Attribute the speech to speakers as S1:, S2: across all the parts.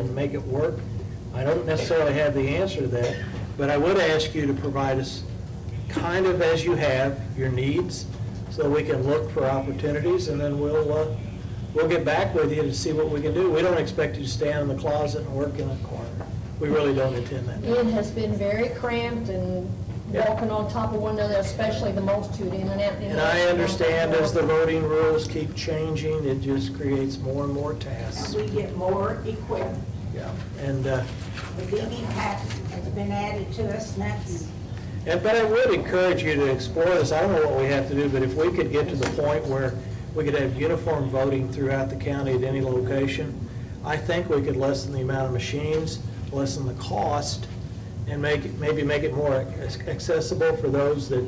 S1: and make it work. I don't necessarily have the answer to that, but I would ask you to provide us, kind of as you have, your needs, so we can look for opportunities, and then we'll, uh, we'll get back with you to see what we can do. We don't expect you to stay in the closet and work in a corner. We really don't intend that.
S2: It has been very cramped and
S1: Yeah.
S2: walking on top of one another, especially the multitude in and out. in
S1: And
S2: out.
S1: I understand as the voting rules keep changing, it just creates more and more tasks.
S3: We get more equipment.
S1: Yeah. And, uh,
S3: The BB pack has been added to us, and that's,
S1: And, but I would encourage you to explore this, I don't know what we have to do, but if we could get to the point where we could have uniform voting throughout the county at any location, I think we could lessen the amount of machines, lessen the cost, and make, it- maybe make it more ac- accessible for those that,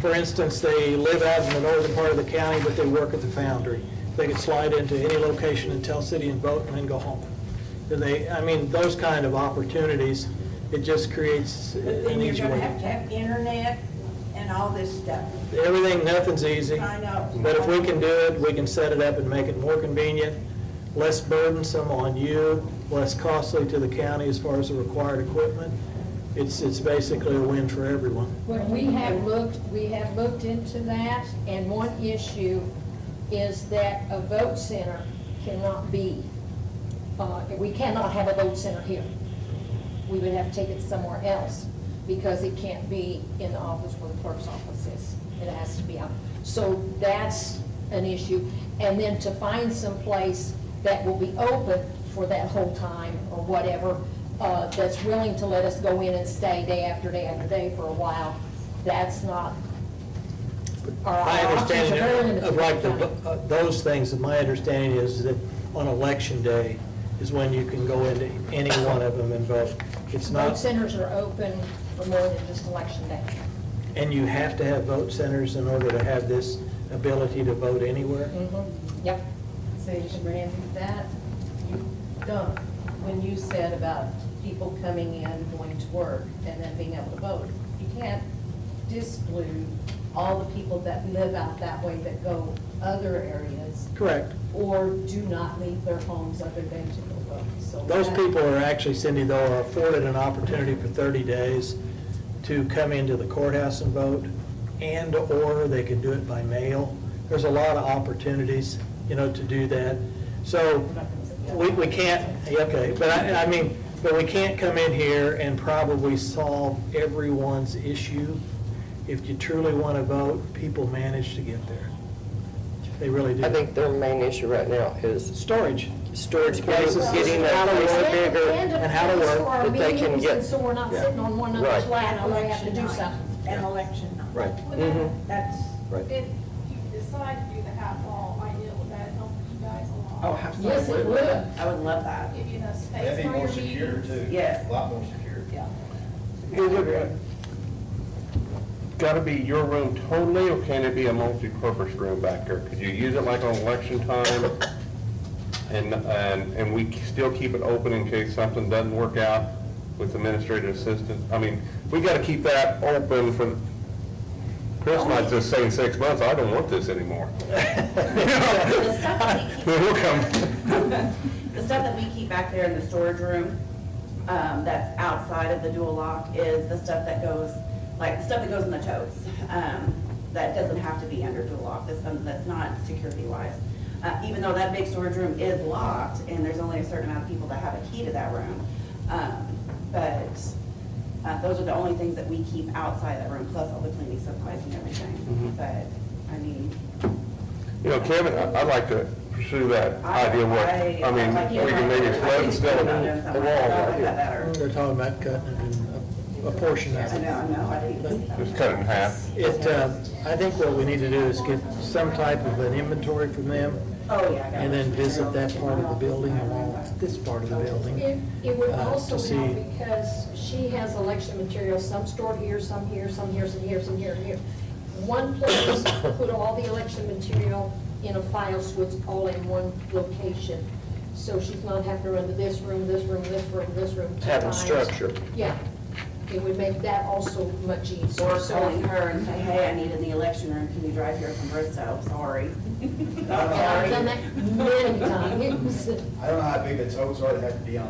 S1: for instance, they live out in the northern part of the county, but they work at the foundry. They could slide into any location in Tell City and vote and then go home. And they, I mean, those kind of opportunities, it just creates
S3: but
S1: an
S3: then you're
S1: easier way.
S3: gonna have to have internet and all this stuff.
S1: Everything, nothing's easy.
S3: I know.
S1: But if we can do it, we can set it up and make it more convenient, less burdensome on you, less costly to the county as far as the required equipment. It's, it's basically a win for everyone.
S2: But we have looked, we have looked into that, and one issue is that a vote center cannot be, uh, we cannot have a vote center here. We would have to take it somewhere else, because it can't be in the office where the clerk's office is. It has to be out. So that's an issue. And then to find some place that will be open for that whole time, or whatever, uh, that's willing to let us go in and stay day after day after day for a while, that's not, our
S1: My
S2: our options Uh, are very
S1: understanding
S2: limited.
S1: of like the, uh, those things, my understanding is that on election day is when you can go into any one of them and vote. It's
S2: Vote
S1: not,
S2: centers are open for more than just election day.
S1: and you have to have vote centers in order to have this ability to vote anywhere. Mm-hmm.
S2: Yep.
S4: So, Randy, that, you done, when you said about Uh, people coming in, going to work, and then being able to vote, you can't disclude all the people that live out that way that go other areas
S1: Correct.
S4: or do not leave their homes other than to go vote, so.
S1: Those
S4: that-
S1: people are actually, Cindy, though, are afforded an opportunity for 30 days to come into the courthouse and vote, and/or they can do it by mail. There's a lot of opportunities, you know, to do that. So we, we can't, yeah, okay, but I, I mean, but we can't come in here and probably solve everyone's issue. If you truly want to vote, people manage to get there. They really do.
S5: I think their main issue right now is
S1: Storage.
S5: storage places,
S1: Places,
S5: getting that
S1: how to
S5: place
S1: work.
S5: bigger.
S1: and how to work
S2: And
S5: that they can
S2: meetings,
S5: get-
S2: and so we're not
S1: Yeah.
S2: sitting on one another's
S5: Right.
S2: lap,
S3: An
S2: and we have to
S3: election
S2: do
S3: night.
S2: something.
S3: An election night.
S1: Right.
S6: Well, then,
S7: Mm-hmm.
S3: That's,
S6: If you decide to do the half wall, I know would that help you guys a lot.
S8: Oh, absolutely.
S2: Yes, it would.
S8: I would love that,
S6: Give you enough space
S9: That'd be
S6: for
S9: more
S6: your
S9: secure
S6: meetings.
S9: too.
S8: Yes.
S9: A lot more secure.
S8: yeah.
S10: Gotta be your room totally, or can it be a multi-purpose room back there? Could you use it like on election time? And, and, and we still keep it open in case something doesn't work out with administrative assistant? I mean, we gotta keep that open for, Chris might just say in six months, I don't want this anymore.
S4: The stuff that we keep-
S10: We'll come.
S7: The stuff that we keep back there in the storage room, um, that's outside of the dual lock is the stuff that goes, like, the stuff that goes in the totes. Um, that doesn't have to be under dual lock, that's something that's not security wise. Uh, even though that big storage room is locked and there's only a certain amount of people that have a key to that room. Um, but, uh, those are the only things that we keep outside that room, plus all the cleaning supplies and everything. But, I mean,
S10: You know, Kevin, I- I'd like to pursue that
S7: I.
S10: idea what, I mean,
S7: like,
S10: we can maybe
S7: I
S10: split
S7: think
S10: instead of
S7: I know
S10: the
S7: something
S10: wall
S7: about
S10: right here.
S7: that or-
S1: They're talking about cutting it in a- a portion of it.
S7: I know, I know, I didn't see that.
S10: Just cut it in half.
S1: It, uh, I think what we need to do is get some type of an inventory from them
S7: Oh, yeah. I got
S1: and
S7: it.
S1: then visit that part of the building and this part of the
S2: It,
S1: building.
S2: it would
S1: uh,
S2: also
S1: to see-
S2: help because she has election materials, some stored here, some here, some here, some here, some here, and here. One place, put all the election material in a file so it's all in one location. So she's not having to run to this room, this room, this room, this room. two
S5: Having
S2: times.
S5: structure.
S2: Yeah. It would make that also much easier.
S7: Or
S2: So-
S7: calling her and say, hey, I need in the election room, can you drive here from Bristow? Sorry.
S2: I've done that many times.
S9: I don't know how big the totes are that have to be on